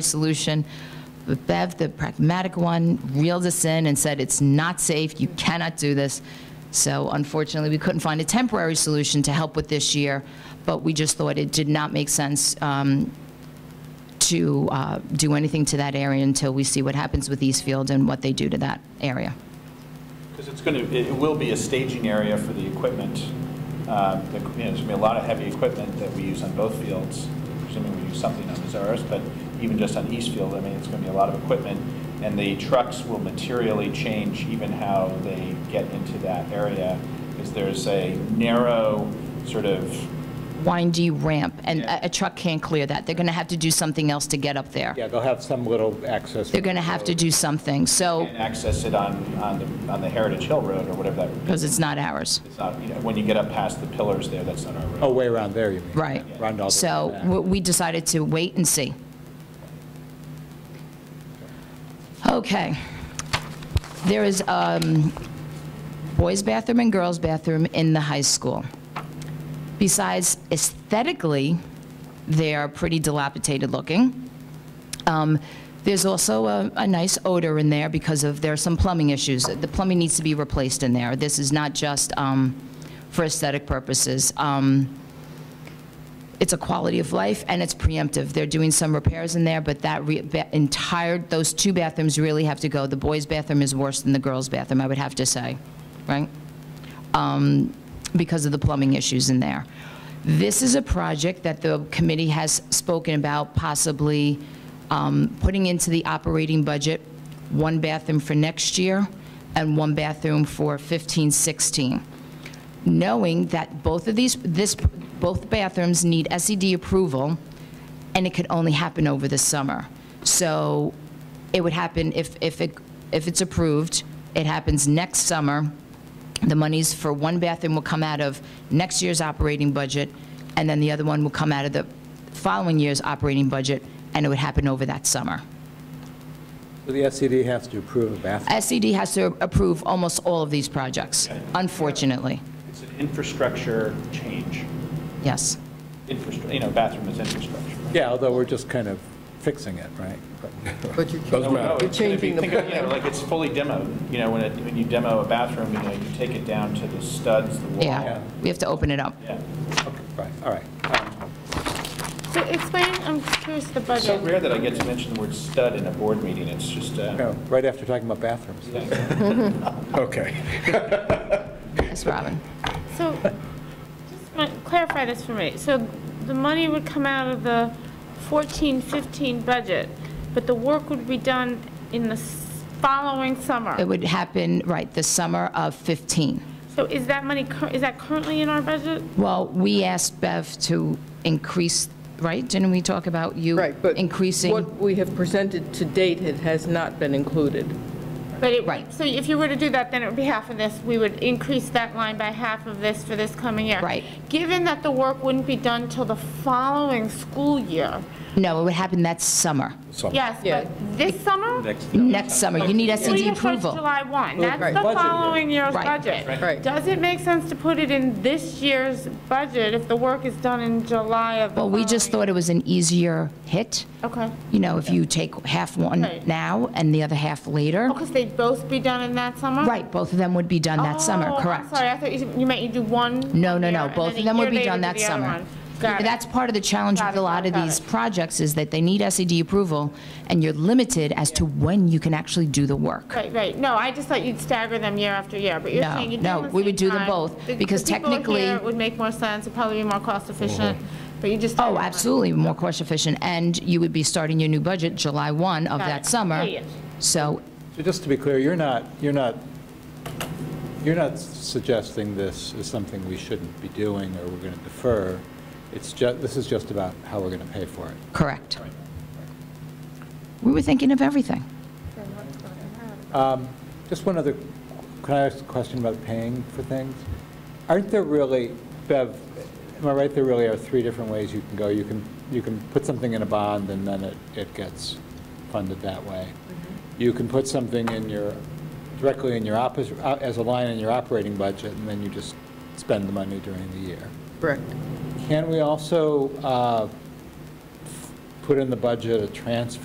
solution. But Bev, the pragmatic one, reeled us in and said, it's not safe, you cannot do this. So unfortunately, we couldn't find a temporary solution to help with this year, but we just thought it did not make sense um, to uh, do anything to that area until we see what happens with Eastfield and what they do to that area. Because it's going to, it will be a staging area for the equipment. Um, the- you know, There's going to be a lot of heavy equipment that we use on both fields, assuming we use something on Mazares, but even just on East Field, I mean, it's going to be a lot of equipment, and the trucks will materially change even how they get into that area, because there's a narrow sort of Windy ramp, and Yeah. a a truck can't clear that. They're going to have to do something else to get up there. Yeah, they'll have some little access. They're going to have to do something, so, and access it on, on the, on the Heritage Hill Road or whatever that, because it's not ours. it's not, you know, when you get up past the pillars there, that's not our road. Oh, way around there, you mean? Right. Around all the way So back. w- we decided to wait and see. Okay. There is um, boys' bathroom and girls' bathroom in the high school. Besides aesthetically, they are pretty dilapidated looking. Um, There's also a, a nice odor in there because of, there are some plumbing issues. The plumbing needs to be replaced in there. This is not just um, for aesthetic purposes. Um, it's a quality of life and it's preemptive. They're doing some repairs in there, but that re- ba- entire, those two bathrooms really have to go. The boys' bathroom is worse than the girls' bathroom, I would have to say, right? Um, Because of the plumbing issues in there. This is a project that the committee has spoken about possibly um, putting into the operating budget, one bathroom for next year and one bathroom for 15, 16 knowing that both of these, this, both bathrooms need SED approval, and it could only happen over the summer. So it would happen if, if it, if it's approved, it happens next summer. The monies for one bathroom will come out of next year's operating budget, and then the other one will come out of the following year's operating budget, and it would happen over that summer. So The SCD has to approve a bathroom. SED E has to approve almost all of these projects, unfortunately. Oh. It's an infrastructure change. Yes. infrastructure, you know, bathroom is infrastructure. Yeah, although we're just kind of fixing it, right? But you No, no, can't, you're it's gonna be- changing the think of, you know, plan. Like, it's fully demoed, you know, when, it- when you demo a bathroom, you know, you take it down to the studs, the wall. Yeah. We have to open it up. Yeah. Okay, Right, all right. So explain, I'm curious, the It's so budget. rare that I get to mention the word stud in a board meeting, it's just, uh, No, Right after talking about bathrooms. Okay. Yes, Robin. So, just want to clarify this for me. So the money would come out of the 14, 15 budget, but the work would be done in the s- following It summer. would happen, right, the summer of 15. So is that money, cur- is that currently in our budget? Well, we asked Bev to increase, right? Didn't we talk about you Right, but increasing? what we have presented to date it has not been included. But it, Right. so if you were to do that, then it would be half of this. We would increase that line by half of this for this coming year. Right. Given that the work wouldn't be done till the following school year. No, it would happen that summer, Yes, Yeah. but this summer? next summer. You need Well, SED you put approval. July 1, right. that's the Budget year. following year's Right. budget. Right. Does it make sense to put it in this year's budget if the work is done in July of the Well, we just following- thought it was an easier hit. Okay. You know, if you take half one Right. now and the other half later. Because they'd both be done in that summer? Right, both of them would be done that summer, Oh, I'm correct? sorry, I thought you you meant you do one. No, no, year no, and both then of a them would year be later done do that the other summer. one. Got it. That's part of the challenge Got with it, a lot of got these it. projects, is that they need SED approval, and you're limited as to when you can actually do the work. Right, right, no, I just thought you'd stagger them year after year, but you're No, saying you'd do no, them at the we would same do them time. both, The- the because people technically- here would make more sense, it'd probably be more cost efficient, but you just. Oh, absolutely, more cost-efficient, and you would be starting your new budget July 1 of Got that it. summer. Yeah, yeah. So, So just to be clear, you're not, you're not, you're not suggesting this is something we shouldn't be doing or we're going to defer. It's ju, this is just about how we're going to pay for it. correct. We were thinking of everything. Just one other, can I ask a question about paying for things? Aren't there really, Bev, am I right, there really are three different ways you can go? You can, you can put something in a bond and then it, it gets funded that way. You can put something in your, directly in your, oppos- uh, as a line in your operating budget, and then you just spend the money during the year. Correct. Can we also uh, put in the budget a transfer